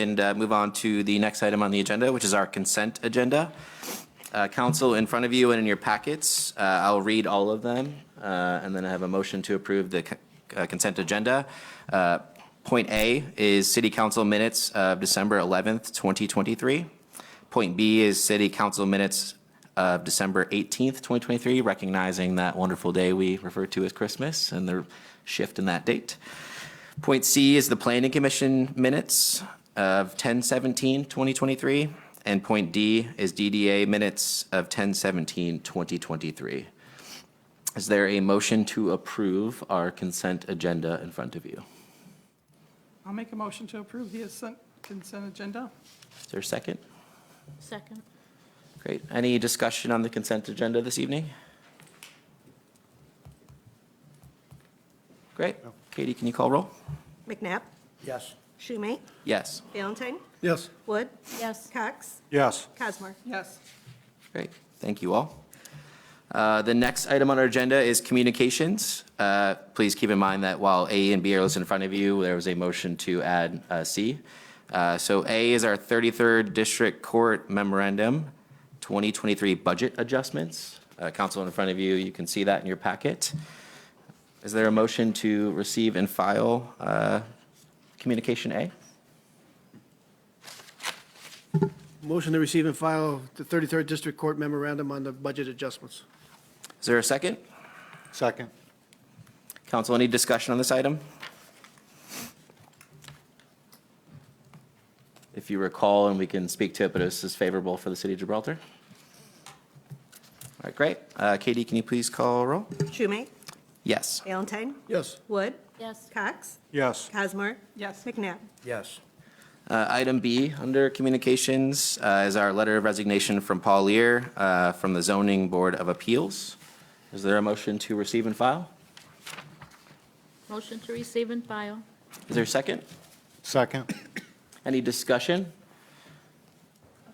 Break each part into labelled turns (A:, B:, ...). A: and uh, move on to the next item on the agenda, which is our consent agenda. Uh, Council, in front of you and in your packets, uh, I'll read all of them, uh, and then I have a motion to approve the c- uh, consent agenda. Uh, Point A is City Council minutes of December 11th, 2023. Point B is City Council minutes of December 18th, 2023, recognizing that wonderful day we refer to as Christmas and the shift in that date. Point C is the Planning Commission minutes of 10-17-2023, And point D is DDA minutes of 10-17-2023. Is there a motion to approve our consent agenda in front of you?
B: I'll make a motion to approve the consent- consent agenda.
A: Is there a second?
C: Second.
A: Great. Any discussion on the consent agenda this evening? Great. Katie, can you call roll?
D: McNabb,
E: Yes.
D: Schumate,
A: Yes.
D: Valentine,
E: Yes.
D: Wood,
C: Yes.
D: Cox,
E: Yes.
D: Cosmore.
B: Yes,
A: Great, thank you all. Uh, The next item on our agenda is communications. Uh, Please keep in mind that while A and B are listed in front of you, there was a motion to add uh, C. Uh, So A is our 33rd District Court Memorandum, 2023 Budget Adjustments. Uh, Council in front of you, you can see that in your packet. Is there a motion to receive and file uh, Communication A?
E: Motion to receive and file the 33rd District Court memorandum on the budget adjustments.
A: Is there a second?
F: Second.
A: Council, any discussion on this item? If you recall, and we can speak to it, but this is favorable for the city of Gibraltar. All right, great. Uh, Katie, can you please call roll?
D: Schumate,
A: Yes.
D: Valentine,
E: Yes.
D: Wood,
C: Yes.
D: Cox,
F: Yes.
D: Cosmore,
B: yes,
D: McNabb.
F: Yes.
A: Uh, Item B, under communications, uh, is our letter of resignation from Paul Lear uh, from the Zoning Board of Appeals. Is there a motion to receive and file?
C: Motion to receive and file.
A: Is there a second?
F: Second.
A: Any discussion?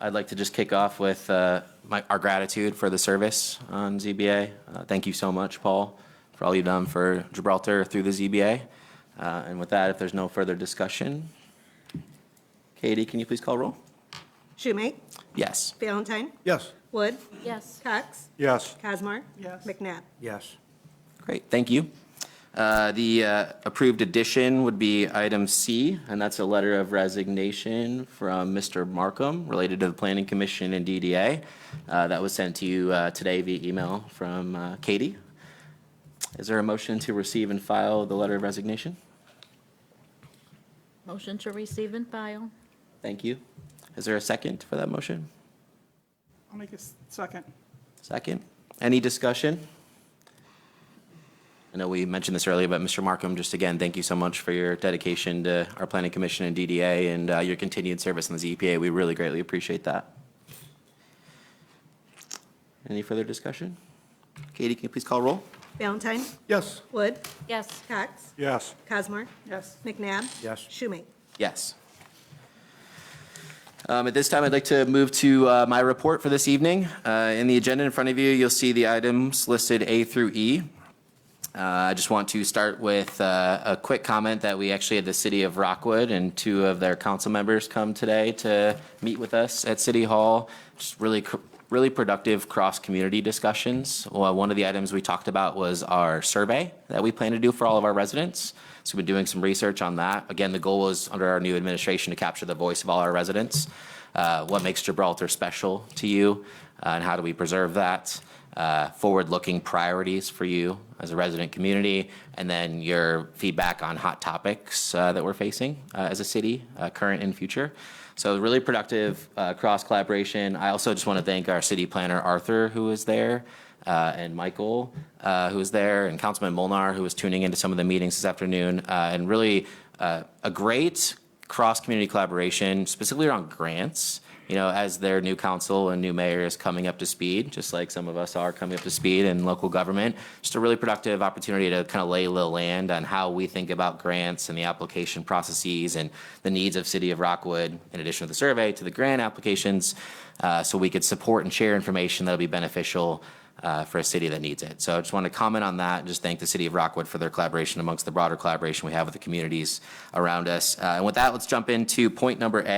A: I'd like to just kick off with uh, my- our gratitude for the service on ZBA. Uh, Thank you so much, Paul, for all you've done for Gibraltar through the ZBA. Uh, And with that, if there's no further discussion, Katie, can you please call roll?
D: Schumate,
A: Yes.
D: Valentine,
E: Yes.
D: Wood,
C: Yes.
D: Cox,
F: Yes.
D: Cosmore.
B: Yes.
D: McNabb.
F: Yes.
A: Great, thank you. Uh, The uh, approved addition would be item C, and that's a letter of resignation from Mr. Markham related to the Planning Commission and DDA. Uh, That was sent to you uh, today via email from uh, Katie. Is there a motion to receive and file the letter of resignation?
C: Motion to receive and file.
A: Thank you. Is there a second for that motion?
B: I'll make a s- second.
A: Second. Any discussion? I know we mentioned this earlier, but Mr. Markham, just again, thank you so much for your dedication to our Planning Commission and DDA and uh, your continued service in the ZPA. We really greatly appreciate that. Any further discussion? Katie, can you please call roll?
D: Valentine,
E: Yes.
D: Wood,
C: Yes.
D: Cox,
F: Yes.
D: Cosmore,
B: Yes,
D: McNabb.
F: Yes.
D: Schumate.
A: Yes. Um, At this time, I'd like to move to uh, my report for this evening. Uh, In the agenda in front of you, you'll see the items listed A through E. Uh, I just want to start with uh, a quick comment that we actually had the city of Rockwood and two of their council members come today to meet with us at City Hall. Just really, cr- really productive cross-community discussions. Well, One of the items we talked about was our survey that we plan to do for all of our residents. So we've been doing some research on that. Again, the goal was under our new administration to capture the voice of all our residents. Uh, What makes Gibraltar special to you uh, and how do we preserve that? uh, forward-looking priorities for you as a resident community, and then your feedback on hot topics uh, that we're facing uh, as a city, uh, current and future. So really productive uh, cross-collaboration. I also just want to thank our city planner, Arthur, who was there, uh, and Michael, uh, who was there, and Councilman Molnar, who was tuning into some of the meetings this afternoon, uh, and really uh, a great cross-community collaboration, specifically around grants. You know, as their new council and new mayor is coming up to speed, just like some of us are coming up to speed in local government, just a really productive opportunity to kind of lay the land on how we think about grants and the application processes and the needs of City of Rockwood, in addition to the survey, to the grant applications, uh, so we could support and share information that'll be beneficial uh, for a city that needs it. So I just want to comment on that and just thank the city of Rockwood for their collaboration amongst the broader collaboration we have with the communities around us. Uh, and with that, let's jump into point number A.